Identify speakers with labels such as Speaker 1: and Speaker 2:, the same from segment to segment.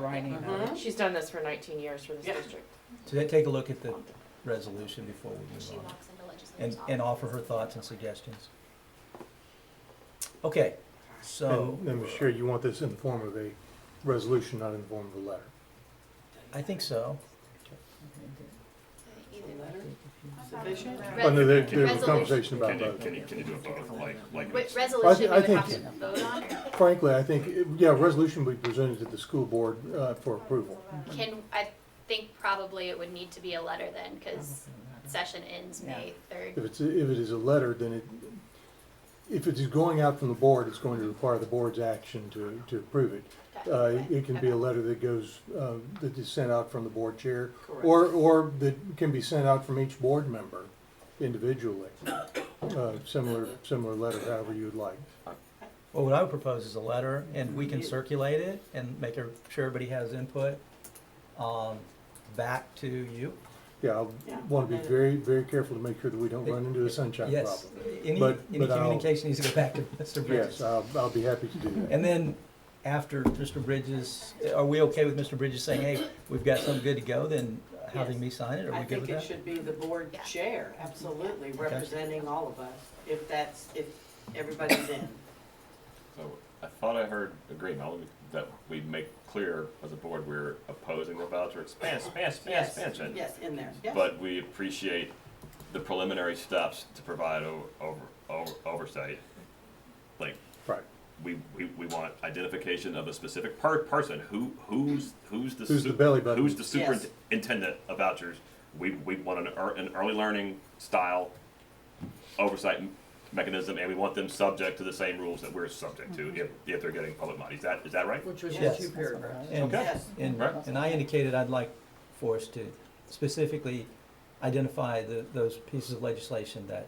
Speaker 1: grinding
Speaker 2: Mm-hmm.
Speaker 1: it out.
Speaker 3: uh, She's done this for nineteen years for this
Speaker 2: Yeah.
Speaker 3: district.
Speaker 4: So they take a look at the resolution before we move
Speaker 5: She
Speaker 4: on,
Speaker 5: walks into legislators.
Speaker 4: and, and offer her thoughts and suggestions. Okay, so,
Speaker 6: And I'm sure you want this in the form of a resolution, not in the form of a letter.
Speaker 4: I think so.
Speaker 2: Sufficient?
Speaker 6: Oh, no, there,
Speaker 5: Res-
Speaker 6: there was a
Speaker 5: resolution.
Speaker 6: conversation about
Speaker 7: Can you,
Speaker 6: both.
Speaker 7: can you, can you do a vote, like, like?
Speaker 5: What resolution we
Speaker 6: I
Speaker 5: would
Speaker 6: think-
Speaker 5: have to vote on?
Speaker 6: Frankly, I think, yeah, a resolution would be presented to the school board, uh, for approval.
Speaker 5: Can, I think probably it would need to be a letter then, because session ends May
Speaker 6: If
Speaker 5: third.
Speaker 6: it's, if it is a letter, then it, if it is going out from the board, it's going to require the board's action to, to approve it. Uh, it can be a letter that goes, uh, that is sent out from the board chair, or, or that can be sent out from each board member individually. Uh, similar, similar letter, however you would like.
Speaker 4: Well, what I would propose is a letter, and we can circulate it and make sure everybody has input, um, back to you.
Speaker 6: Yeah, I
Speaker 2: Yeah.
Speaker 6: want to be very, very careful to make sure that we don't run into a sunshine
Speaker 4: Yes,
Speaker 6: problem.
Speaker 4: any, any
Speaker 6: But- but I'll-
Speaker 4: communication needs to go back to Mr.
Speaker 6: Yes,
Speaker 4: Bridges.
Speaker 6: I'll, I'll be happy to do that.
Speaker 4: And then after Mr. Bridges, are we okay with Mr. Bridges saying, hey, we've got something good to go, then having me sign it, are
Speaker 2: I
Speaker 4: we good
Speaker 2: think
Speaker 4: with
Speaker 2: it
Speaker 4: that?
Speaker 2: should be the board
Speaker 5: Yeah.
Speaker 2: chair, absolutely, representing all of us, if that's, if everybody's in.
Speaker 7: So, I thought I heard agreement, that we make clear as a board, we're opposing the voucher expan- expan- expan-
Speaker 2: Yes,
Speaker 7: expansion.
Speaker 2: Yes, in there, yes.
Speaker 7: But we appreciate the preliminary steps to provide o- over, over, oversight. Like,
Speaker 6: Right.
Speaker 7: we, we, we want identification of a specific per- person, who, who's, who's the.
Speaker 6: Who's the
Speaker 7: sup-
Speaker 6: belly button?
Speaker 7: Who's the
Speaker 2: Yes.
Speaker 7: superintendent of vouchers. We, we want an, ear- an early learning style oversight m- mechanism, and we want them subject to the same rules that we're subject to if, if they're getting public money. Is that, is that right?
Speaker 2: Which was
Speaker 4: Yes.
Speaker 2: just two paragraphs.
Speaker 4: And-
Speaker 7: Okay.
Speaker 2: Yes,
Speaker 4: And,
Speaker 7: Right.
Speaker 4: and I indicated I'd like for us to specifically identify the, those pieces of legislation that,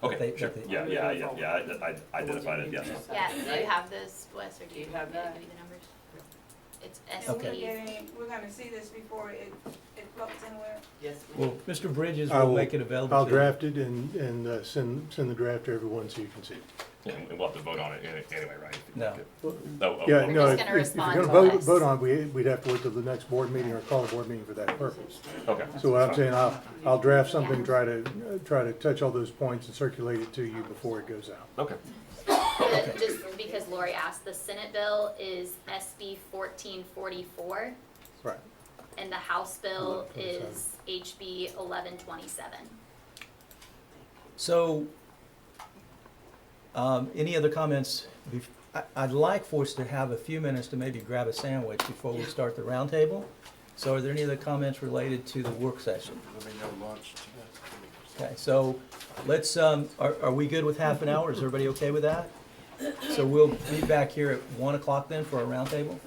Speaker 7: Okay,
Speaker 4: They-
Speaker 7: sure.
Speaker 4: they-
Speaker 7: Yeah, yeah, yeah, yeah, I, I identified it, yes.
Speaker 5: Yeah, do you have those, Wes, or do
Speaker 2: Do
Speaker 5: you
Speaker 2: you
Speaker 5: want
Speaker 2: have
Speaker 5: me to
Speaker 2: that?
Speaker 5: give you the numbers? It's
Speaker 4: Okay.
Speaker 8: And we
Speaker 5: STD.
Speaker 8: getting, we're gonna see this before it, it floats anywhere.
Speaker 2: yes, ma'am.
Speaker 4: well, Mr. Bridges
Speaker 6: I
Speaker 4: will
Speaker 6: will-
Speaker 4: make it available to.
Speaker 6: I'll draft it and, and uh, send, send the draft to everyone so you can see. it.
Speaker 7: Yeah, And we'll have to vote on it any- anyway, right?
Speaker 4: No.
Speaker 7: Oh, oh,
Speaker 6: Yeah,
Speaker 7: oh,
Speaker 5: just
Speaker 6: no, if
Speaker 5: gonna
Speaker 6: if- if you're
Speaker 5: respond
Speaker 6: gonna
Speaker 5: to
Speaker 6: vote,
Speaker 5: us.
Speaker 6: vote on, we, we'd have to wait till the next board meeting or call a board meeting for that purpose.
Speaker 7: Okay.
Speaker 6: So what I'm saying, I'll, I'll draft something, try to, uh, try to touch all those points and circulate it to you before it goes out.
Speaker 7: Okay,
Speaker 5: Uh, Just because Lori asked, the Senate bill is SB fourteen forty-four,
Speaker 6: Right.
Speaker 5: and the House bill
Speaker 6: Eleven twenty
Speaker 5: is HB eleven twenty-seven.
Speaker 4: So, um, any other comments? bef- I, I'd like for us to have a few minutes to maybe grab a sandwich before we start the roundtable. So are there any other comments related to the work session? Okay, so let's, um, are, are we good with half an hour? Is everybody okay with that? So we'll be back here at one o'clock then for our roundtable?